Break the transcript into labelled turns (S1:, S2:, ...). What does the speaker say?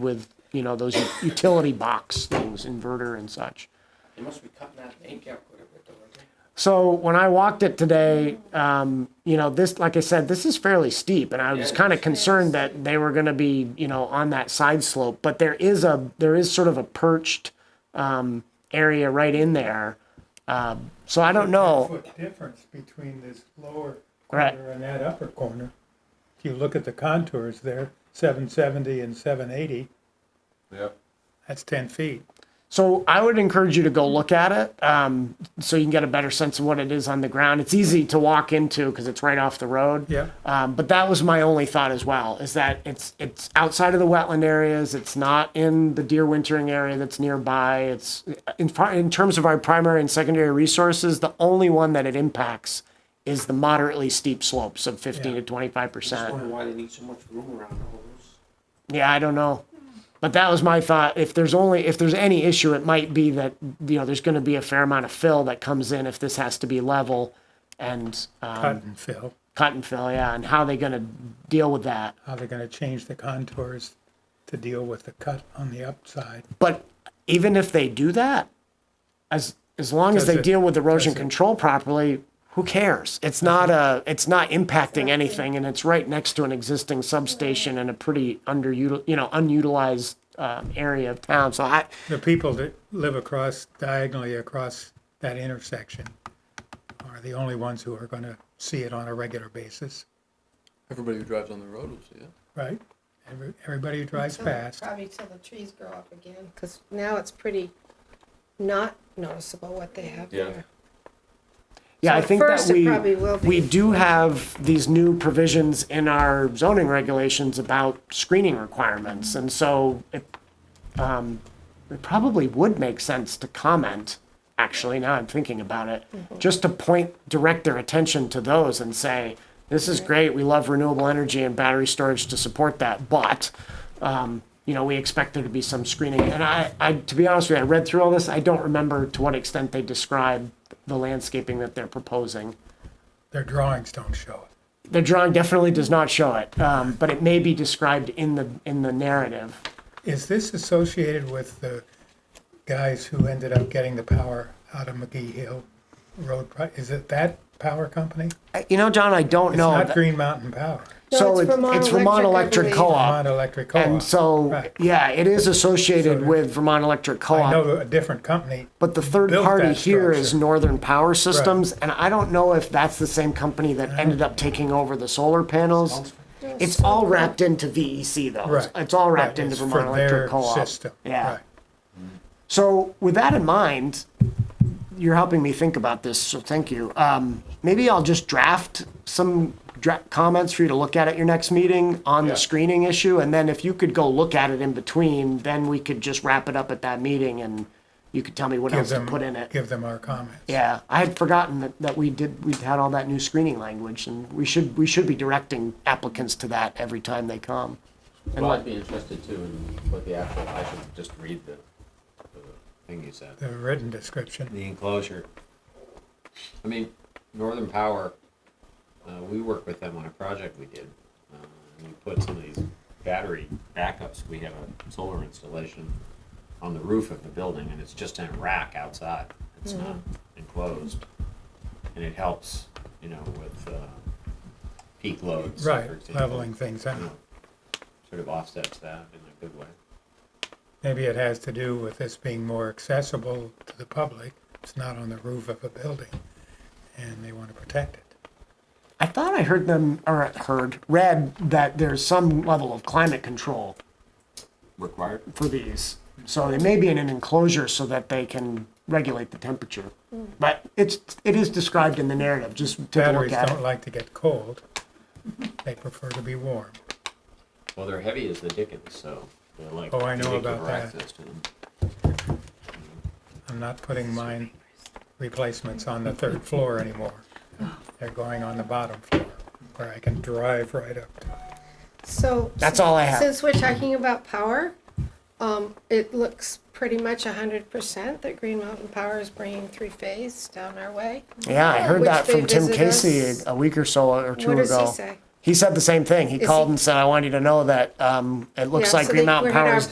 S1: with, you know, those utility box things, inverter and such.
S2: They must be cutting that bank out quite a bit though, aren't they?
S1: So when I walked it today, um, you know, this, like I said, this is fairly steep and I was
S2: Yeah.
S1: kind of concerned that they were going to be, you know, on that side slope, but there is a, there is sort of a perched, um, area right in there. Um, so I don't know.
S3: foot difference between this lower
S1: Right.
S3: corner and that upper corner. If you look at the contours there, seven seventy and seven eighty,
S4: Yep.
S3: that's ten feet.
S1: So I would encourage you to go look at it, um, so you can get a better sense of what it is on the ground. It's easy to walk into because it's right off the road.
S3: Yeah.
S1: Um, but that was my only thought as well, is that it's it's outside of the wetland areas. It's not in the deer wintering area that's nearby. It's in far, in terms of our primary and secondary resources, the only one that it impacts is the moderately steep slopes of 15 to 25
S2: Just
S1: percent.
S2: wondering why they need so much room around all those.
S1: Yeah, I don't know. But that was my thought. If there's only if there's any issue, it might be that you know there's going to be a fair amount of fill that comes in if this has to be level and um,
S3: Cut and fill,
S1: cut and fill. Yeah, and how they going to deal with that?
S3: how they're gonna change the contours to deal with the cut on the upside.
S1: But even if they do that, as as long as
S3: Does
S1: they
S3: it-
S1: deal with erosion
S3: does it-
S1: control properly, who cares? It's not a it's not impacting anything, and it's right next to an existing substation and a pretty underutil you know unutilized um, area of town. So I
S3: The people that live across, diagonally across that intersection are the only ones who are gonna see it on a regular basis,
S4: Everybody who drives on the road will see it.
S3: right? Every- Everybody who drives
S5: Till-
S3: past.
S5: Probably till the trees grow up again, because now it's pretty not noticeable what they have
S4: Yeah.
S5: there.
S1: Yeah,
S5: So
S1: I
S5: at
S1: think that
S5: first it
S1: we,
S5: probably will be.
S1: we do have these new provisions in our zoning regulations about screening requirements, and so it, um, it probably would make sense to comment, actually, now I'm thinking about it,
S5: Mm-hmm.
S1: just to point, direct their attention to those and say, this is great, we love renewable energy and battery storage to support that, but, um, you know, we expect there to be some screening. And I, I, to be honest with you, I read through all this, I don't remember to what extent they describe the landscaping that they're proposing.
S3: Their drawings don't show it.
S1: The drawing definitely does not show it, um, but it may be described in the, in the narrative.
S3: Is this associated with the guys who ended up getting the power out of McGee Hill Road? pro- Is it that power company?
S1: Uh, You know, John, I don't
S3: It's
S1: know.
S3: not
S1: that-
S3: Green Mountain Power,
S5: No,
S1: So
S5: it's
S1: it's,
S5: Vermont
S1: it's Vermont
S5: Electric, I
S1: Electric
S5: believe.
S1: Co-op.
S3: Vermont Electric
S1: Uh, And
S3: Co-op.
S1: so,
S3: Right.
S1: yeah, it is associated
S3: So-
S1: with Vermont Electric
S3: I
S1: Co-op.
S3: know a different company.
S1: But the third
S3: built
S1: party
S3: that
S1: here is
S3: structure.
S1: Northern Power Systems, and I don't know if that's the same company
S3: Uh-huh.
S1: that ended up taking over the solar panels. It's all wrapped into VEC though. It's-
S3: Right.
S1: It's all
S3: Right,
S1: wrapped into
S3: it's for
S1: Vermont
S3: their
S1: Electric Co-op.
S3: System.
S1: Yeah.
S3: Right.
S1: So with that in mind, you're helping me think about this, so thank you. Um, maybe I'll just draft some dra- comments for you to look at at your next meeting on the
S4: Yeah.
S1: screening issue, and then if you could go look at it in between, then we could just wrap it up at that meeting and you could tell me what
S3: Give
S1: else to
S3: them,
S1: put in it.
S3: give them our comments.
S1: Yeah, I had forgotten that, that we did, we had all that new screening language, and we should, we should be directing applicants to that every time they come. And
S6: Well, I'd
S1: what,
S6: be interested too in what the actual, I should just read the, the thing you said,
S3: The written description.
S6: the enclosure. I mean, Northern Power, uh, we worked with them on a project we did. Uh, and we put some of these battery backups, we have a solar installation on the roof of the building and it's just in a rack outside. It's
S1: Mm-hmm.
S6: not enclosed. And it helps, you know, with, uh, peak loads. for
S3: Right,
S6: example.
S3: leveling things
S6: You know,
S3: out.
S6: Sort of offsets that in a good way.
S3: Maybe it has to do with this being more accessible to the public. It's not on the roof of a building, and they want to protect it.
S1: I thought I heard them, or heard, read that there's some level of climate control
S6: Required?
S1: for these. So they may be in an enclosure so that they can regulate the temperature.
S5: Mm.
S1: But it's, it is described in the narrative, just take a look
S3: Batteries
S1: at
S3: don't
S1: it.
S3: like to get cold. They prefer to be warm.
S6: Well, they're heavy as the dickens, so they're like.
S3: Oh, I know
S6: particular
S3: about that.
S6: access to them.
S3: I'm not putting mine replacements on the third floor anymore. They're going on the bottom floor where I can drive right up to it.
S5: So.
S1: That's all I have.
S5: Since we're talking about power, um, it looks pretty much a hundred percent that Green Mountain Power is bringing three-phase down our way.
S1: Yeah, I heard
S5: Which
S1: that
S5: they
S1: from Tim
S5: visit
S1: Casey
S5: us.
S1: a week or so or two
S5: What does
S1: ago.
S5: he say?
S1: He said the same thing. He
S5: Is
S1: called
S5: he-
S1: and said, I want you to know that, um, it looks
S5: Yeah,
S1: like
S5: so
S1: Green
S5: they-
S1: Mountain
S5: we're at
S1: Power
S5: our
S1: is